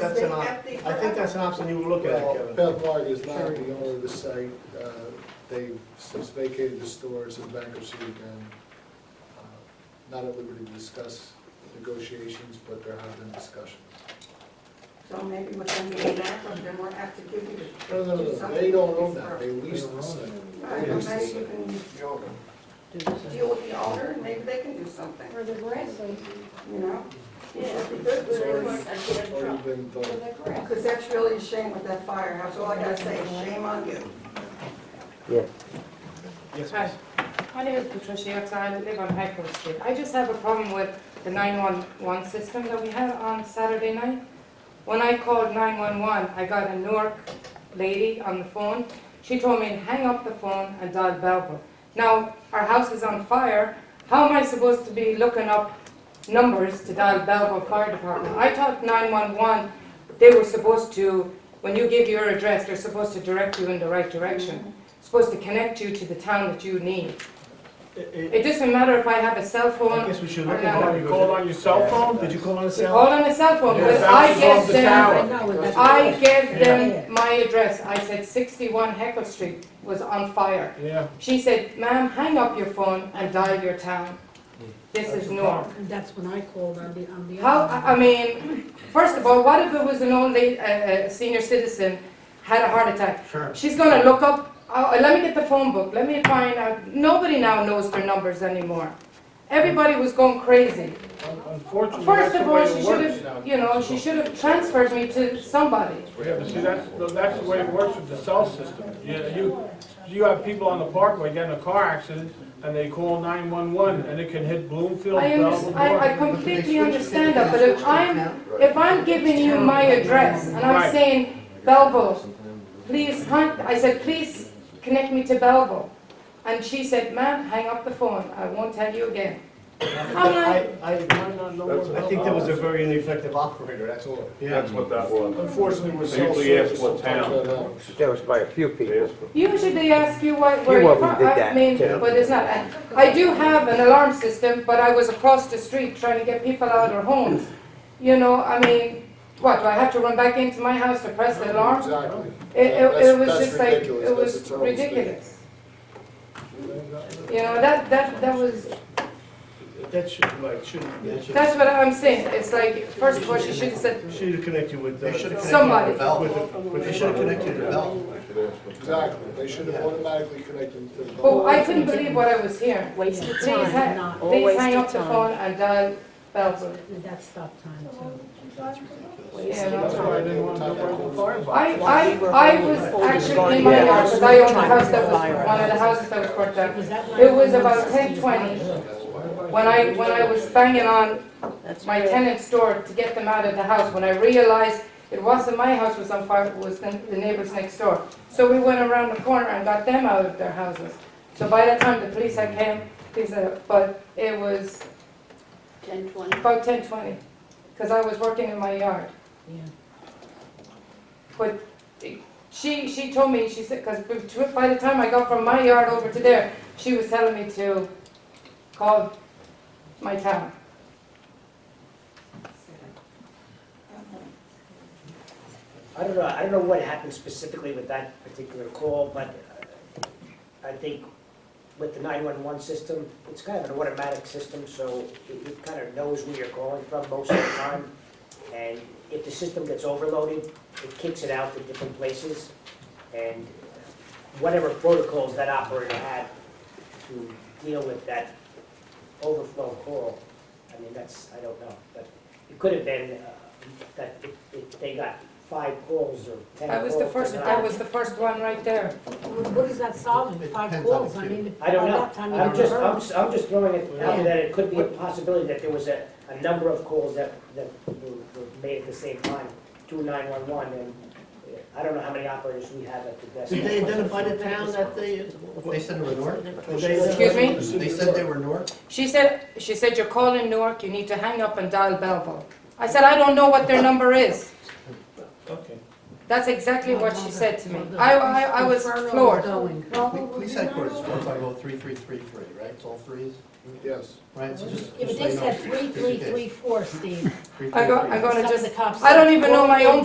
That's an, op- I think that's an option you would look at, Kevin. Pevlog is not the owner of the site. Uh, They've since vacated the stores in bankruptcy again. Uh, Not at liberty to discuss negotiations, but there have been discussions. So maybe within the amount, then we'll have to give you. No, no, no, they don't own that, they leased the site. Right, They well, leased the maybe you site. can Well, deal with the owner, and maybe they can do something, For the grass, so you know? yeah, It's already- it's already been for done. the grass. Because that's really a shame with that firehouse, all I gotta say is shame on you. Yes, Hi, miss. my name is Patricia Yates, I live on High Court Street. I just have a problem with the 911 system that we had on Saturday night. When I called 911, I got a Newark lady on the phone. She told me to hang up the phone and dial Belleville. Now, our house is on fire, how am I supposed to be looking up numbers to dial Belleville Fire Department? I thought 911, they were supposed to, when you give your address, they're supposed to direct you in the right direction supposed to connect you to the town that you need. I It doesn't matter if I have a cell I phone, guess we should look Oh, at no. it. You called on your cell phone? Did you call on a we cell? call on a cell phone, Yes, but I that's gave above the them, tower. I gave them my address. I said sixty-one Heckle Street was on fire. Yeah. She said, ma'am, hang up your phone and dial your town. This is Newark. That's when I called on the, on the. How, other I I mean, first of all, what if it was an old lady, a a senior citizen, had a heart attack? Sure. She's gonna look up, uh, let me get the phone book, let me find out, nobody now knows their numbers anymore. Everybody was going crazy. Un- Unfortunately, that's First the of way all, she it should works now. have, you know, she should have transferred me to somebody. Yeah, but see, that's, the- that's the way it works with the cell system. You, you, you have people on the parkway getting a car accident, and they call nine-one-one, and it can hit Bloomfield, I Belleville. understand, I, I Newark. completely understand that, but if I'm, if I'm giving you my address and I'm Right. saying Belleville, please con, I said, please connect me to Belleville. And she said, ma'am, hang up the phone, I won't tell you again. I'm I, like, I, You might not know where I think Belleville that was a is. very ineffective operator, that's all. That's what that was. Unfortunately, we're They self-service. usually ask what sometimes town. that helps. That was by a few people. usually they ask you why, where You you're already from, did I that, mean, yeah. but it's not. I- I do have an alarm system, but I was across the street trying to get people out of their homes. You know, I mean, what, do I have to run back into my house to press the alarm? Exactly. It, it, That's- it was that's just like, ridiculous. it That's was its own thing. ridiculous. You know, that, that, that was, That should, right, shouldn't, that should, that's what I'm saying, it's like, first of all, she should have said, should have connected with. uh, They should have Somebody. connected with the With bell. the- But they should have connected to the bell. Exactly, they should have automatically connected to the. oh, I couldn't believe what I was hearing. Waste of Please time, hang, not, please always hang of up the phone time. and dial Belleville. That stop time too. Yeah, That's no. why I didn't want to go where the fire was. I, I, I was actually in my house, because I owned the house that was, one of the houses that was burnt down. Is that It was 911 about system ten is twenty, not- when I, when I was banging on That's my tenant's door to get them out of the house when I realized it wasn't my house was on fire, it was the the neighbors next door. So we went around the corner and got them out of their houses. So by the time the police had came, these are, but it was Ten twenty. about ten twenty, because I was working in my yard. Yeah. But she, she told me, she said, because by the time I got from my yard over to there, she was telling me to call my town. I don't know, I don't know what happened specifically with that particular call, but uh, I think with the 911 system, it's kind of an automatic system, so it it kind of knows where you're calling from most of the time. And if the system gets overloaded, it kicks it out to different places. And whatever protocols that operator had to deal with that overflow call, I mean, that's, I don't know. But it could have been uh, that if- if they got five calls or 10 calls. That was the first, tonight. that was the first one right there. What what is that solving, It five depends on calls, the I mean. I don't by know. that time you I'm have just, a I'm, burn. s- I'm just throwing it out Yeah. there that it could be a possibility that there was a, a number of calls that, that were were made at the same time, to 911, and uh, I don't know how many operators we have at the desk. Did they identify the town that they, they said they were north? Excuse me? They said they were north? She said, she said, you're calling Newark, you need to hang up and dial Belleville. I said, I don't know what their number is. Okay. That's exactly what she said to me. I, I, I was Referral's floored. going. oh Police headquarters is 1503333, right? It's all threes? Yes. right? So just, Yeah, but just so you they know, said three, just in three, case. three, four, Steve. Three, I three, go, three. I go to Some of just the cops I don't said, even know "Well, my they own